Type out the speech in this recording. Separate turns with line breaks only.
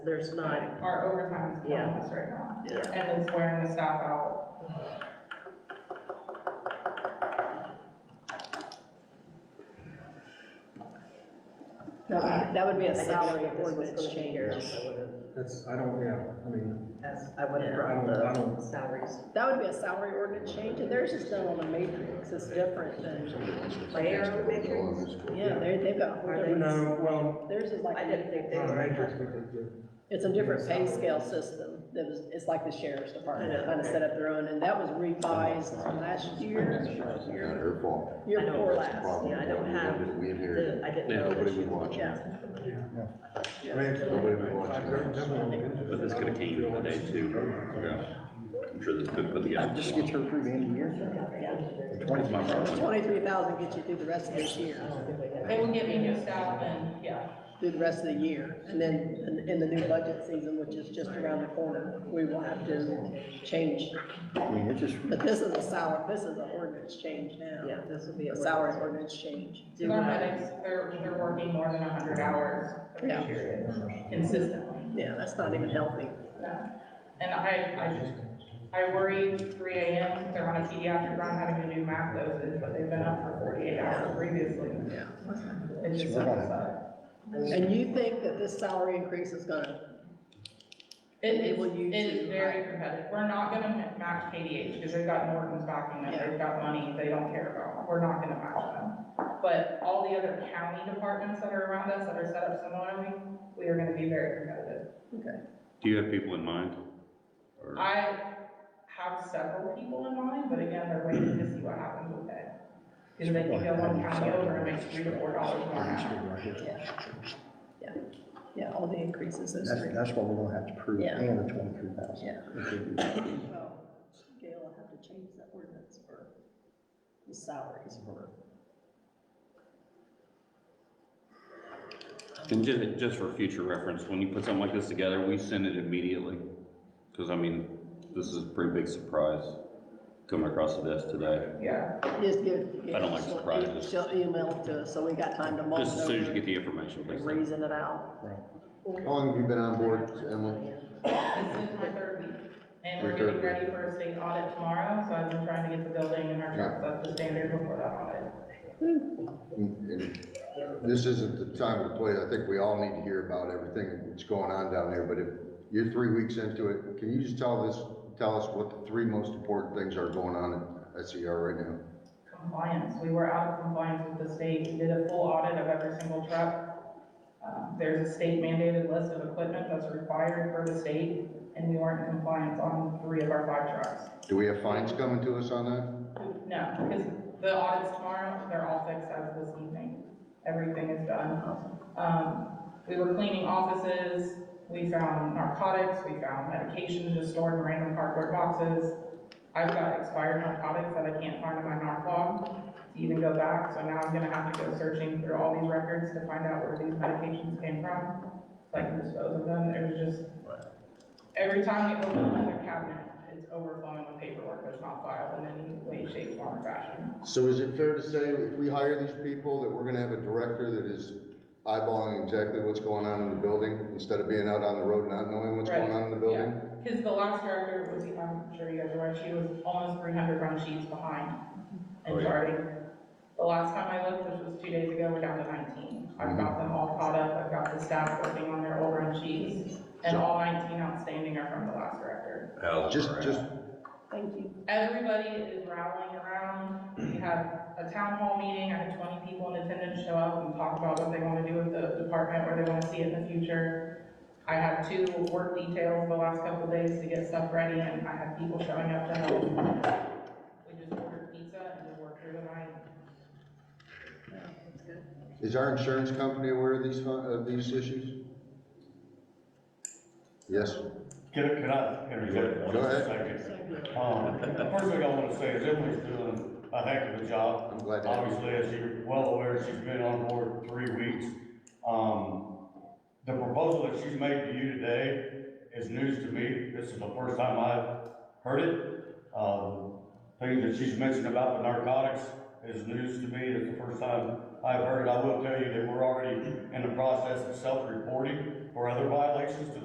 There's not,
Our overtime is killing
Yeah.
us right now,
yeah.
and it's wearing the staff out.
No, that would be a
I
salary
salary
if this was
ordinance
gonna change.
changes. I would've-
That's, I don't, yeah, I mean,
that's- I would have
I
brought
don't, I
the
don't,
salaries.
That would be a salary ordinance change, and theirs is done on a matrix, it's different than,
They are the matrix?
yeah, they, they've got a
Are
whole
they-
different,
no, well,
theirs is
I
like,
didn't think they
not a
were.
matrix, we could do.
it's a different pay scale system. That was, it's like the sheriff's department,
I know.
kind of set up their own, and that was revised last
That's
year,
right, it's not her fault.
year
I know.
before
That's the
last.
problem.
yeah, I don't have
We inherited,
the- I didn't
and
know.
nobody
that
would
you-
watch
Yeah.
it.
I mean, it's-
Nobody would watch it.
But this could have came the other day too. Yeah. I'm sure this could put together.
Just get her three grand a year.
Twenty's my problem.
Twenty-three thousand gets you through the rest of this year,
They will give me new staff and, yeah,
through the rest of the year, and then in, in the new budget season, which is just around the corner, we will have to change.
I mean, it's just,
But this is a salary, this is an ordinance change now.
Yeah, this would be a.
a salary ordinance change.
Do
their
I-
medics, they're, they're working more than hundred hours a
Yeah.
year consistently.
Yeah, that's not even healthy.
And I, I, I worry three AM, they're on a pediatric run having to do math doses, but they've been up for forty-eight hours previously.
Yeah.
It just sucks up.
And you think that this salary increase is gonna,
It
Enable
is,
you
it is
to-
very competitive. We're not gonna ma- match KDH because they've got Norton's backing them.
Yeah.
They've got money they don't care about. We're not gonna match them. But all the other county departments that are around us that are set up similarly, we are gonna be very competitive.
Do you have people in mind? Or-
I have several people in mind, but again, they're waiting to see what happens with it. Because they can go one county over and make three to four dollars more an hour.
yeah, all the increases is
that's,
three.
that's what we're gonna have to prove,
Yeah.
and the twenty-three thousand.
Yeah.
Yeah.
Well, Gail will have to change that ordinance for the salaries for.
And just, just for future reference, when you put something like this together, we send it immediately. Because I mean, this is a pretty big surprise coming across the desk today.
Yeah,
Just give.
I don't like surprises.
She'll email it to us, so we got time to mull it
Just as soon as you
over
get the information,
and
please.
reason it out.
How long have you been on board, Emily?
this is my third week. And we're
Your third
getting ready for a state audit tomorrow, so I've been trying to get the building and our
Yeah.
trucks up to standard before that audit.
And This isn't the time to play, I think we all need to hear about everything that's going on down there, but if you're three weeks into it, can you just tell this, tell us what the three most important things are going on at SER right now?
Compliance, we were out of compliance with the state. We did a full audit of every single truck. Uh, There's a state mandated list of equipment that's required for the state, and we weren't in compliance on three of our five trucks.
Do we have fines coming to us on that?
No, because the audits tomorrow, they're all fixed as of this evening. Everything is done. Um, we were cleaning offices, we found narcotics, we found medications just stored in random cardboard boxes. I've got expired narcotics that I can't find in my narc log to even go back, so now I'm gonna have to go searching through all these records to find out where these medications came from. So I can dispose of them, it was just, every time you open another cabinet, it's overflowing with paperwork that's not filed in any way, shape, form, or fashion.
So is it fair to say if we hire these people that we're gonna have a director that is eyeballing exactly what's going on in the building instead of being out on the road not knowing what's going on in the building?
Because the last director was, I'm sure you guys are aware, she was almost three hundred run sheets behind
Oh,
and
yeah.
charting. The last time I looked, which was two days ago, we're down to nineteen. I've
Mm-hmm.
got them all caught up, I've got the staff working on their old run sheets, and all nineteen outstanding are from the last director.
How's
Just,
morale?
just,
Thank you.
Everybody is rattling around, we had a town hall meeting, I had twenty people in attendance show up and talk about what they want to do with the department, where they want to see it in the future. I had two work details the last couple of days to get stuff ready, and I had people showing up to help. We just ordered pizza and we worked through the night.
is our insurance company aware of these, fu- of these issues? Yes?
Can, can I interject for
Go
just a
ahead.
second? Um, first thing I wanna say is Emily's doing a heck of a job.
I'm glad to have you.
Obviously, as you're well aware, she's been on board three weeks. Um, the proposal that she's made to you today is news to me. This is the first time I've heard it. Um, things that she's mentioned about the narcotics is news to me. It's the first time I've heard it. I will tell you that we're already in the process of self-reporting for other violations to